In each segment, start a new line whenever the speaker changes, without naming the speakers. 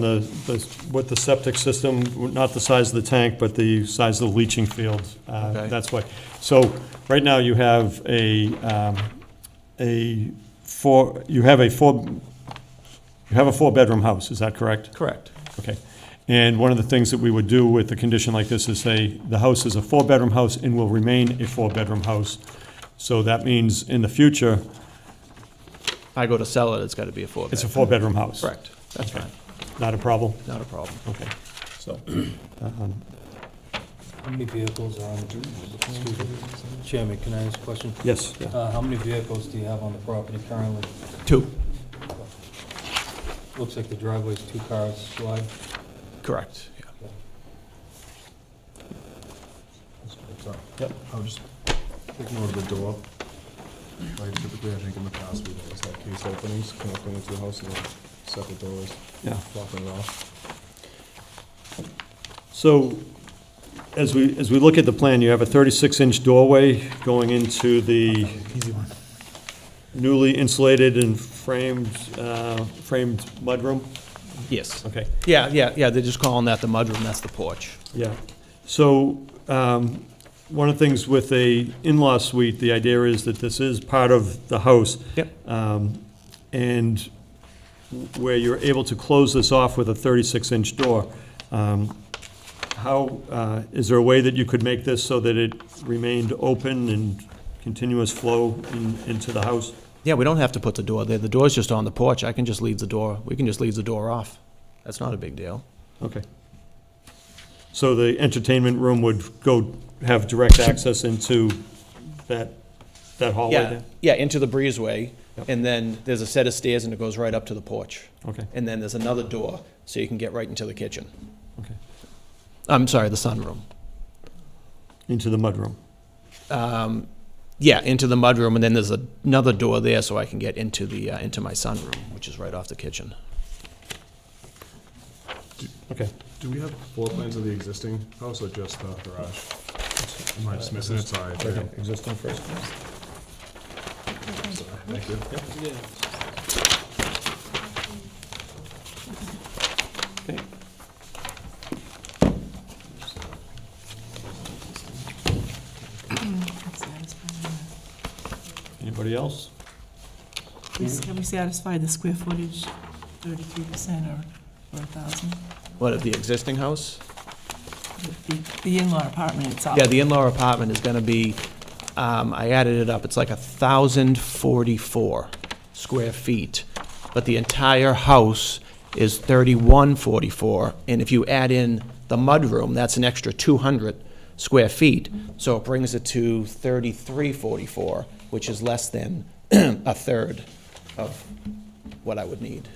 The, the- what the septic system, not the size of the tank, but the size of the leaching field, uh,
Okay.
that's why. So, right now you have a, um, a four, you have a four, you have a four-bedroom house, is that correct?
Correct.
Okay. And one of the things that we would do with a condition like this is say, the house is a four-bedroom house and will remain a four-bedroom house. So that means in the future,
If I go to sell it, it's got to be a four
it's a four-bedroom house.
Correct. That's fine.
Not a problem?
Not a problem.
Okay, so.
How many vehicles are on, excuse me, Chairman, can I ask a question?
Yes.
Uh, how many vehicles do you have on the property currently?
Two.
Looks like the driveway's two cars wide.
Correct. Yeah.
Yep.
I'll just take note of the door. Like typically, I think in the past, we've always had case openings connecting into the house and then separate doors,
Yeah.
locking it off.
So, as we, as we look at the plan, you have a 36-inch doorway going into the newly insulated and framed, uh, framed mudroom?
Yes.
Okay,
Yeah, yeah, yeah. They're just calling that the mudroom. That's the porch.
yeah. So, um, one of the things with a in-law suite, the idea is that this is part of the house.
Yep.
Um, And where you're able to close this off with a 36-inch door, um, how, uh, is there a way that you could make this so that it remained open and continuous flow in- into the house?
Yeah, we don't have to put the door there. The door's just on the porch. I can just leave the door. We can just leave the door off. That's not a big deal.
Okay. So the entertainment room would go, have direct access into that, that hallway
Yeah,
there?
yeah, into the breezeway.
Yep.
And then there's a set of stairs and it goes right up to the porch.
Okay,
And then there's another door so you can get right into the kitchen.
okay.
I'm sorry, the sunroom.
Into the mudroom.
um, yeah, into the mudroom, and then there's another door there, so I can get into the uh, into my sunroom, which is right off the kitchen.
Okay.
Do we have floor plans of the existing house or just the garage? Am I just missing it? Sorry.
Existing first.
Sorry. Thank you.
Anybody else?
Can we satisfy the square footage, thirty-three percent or, or a thousand?
What of the existing house?
The, the in-law apartment itself?
Yeah, the in-law apartment is going to be. Um, I added it up. It's like a thousand forty-four square feet, but the entire house is thirty-one forty-four, and if you add in the mudroom, that's an extra two hundred square feet. So it brings it to thirty-three forty-four, which is less than a third of what I would need.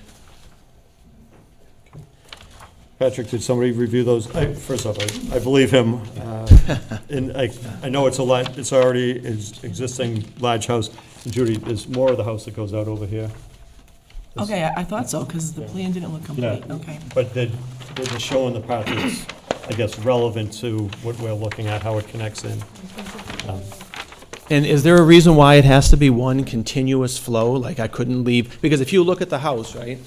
Patrick, did somebody review those? I, first off, I, I believe him. uh, And I, I know it's a lot, it's already is existing large house. Judy, there's more of the house that goes out over here.
Okay, I, I thought so, because the plan didn't look complete, okay.
But they're, they're just showing the part that's, I guess, relevant to what we're looking at, how it connects in. Um,
And is there a reason why it has to be one continuous flow? Like I couldn't leave, because if you look at the house, right?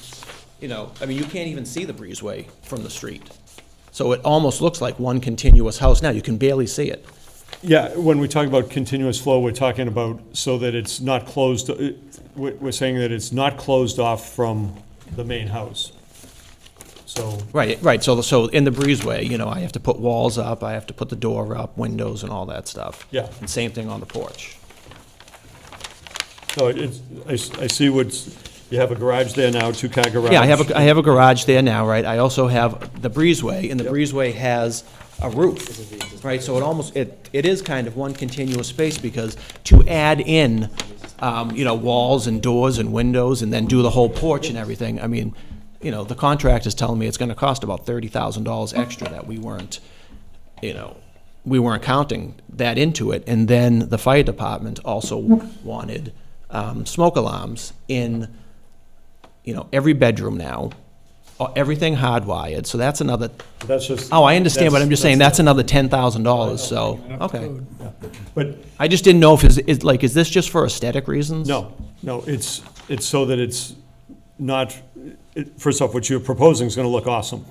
You know, I mean, you can't even see the breezeway from the street. So it almost looks like one continuous house now. You can barely see it.
Yeah, when we talk about continuous flow, we're talking about so that it's not closed, uh, we're, we're saying that it's not closed off from the main house. So,
Right, right. So, so in the breezeway, you know, I have to put walls up, I have to put the door up, windows and all that stuff.
Yeah.
And same thing on the porch.
so it's, I, s- I see what's, you have a garage there now, two-car garage.
Yeah, I have a, I have a garage there now, right? I also have the breezeway, and the breezeway has a roof, right? So it almost, it, it is kind of one continuous space, because to add in, um, you know, walls and doors and windows, and then do the whole porch and everything, I mean, you know, the contract is telling me it's gonna cost about thirty thousand dollars extra that we weren't, you know, we weren't counting that into it. And then the fire department also wanted, um, smoke alarms in you know, every bedroom now, uh, everything hardwired, so that's another,
That's just.
oh, I understand, but I'm just saying, that's
an.
another ten thousand dollars, so, okay.
But,
I just didn't know if, is, is, like, is this just for aesthetic reasons?
no, no, it's, it's so that it's not, it- first off, what you're proposing is gonna look awesome.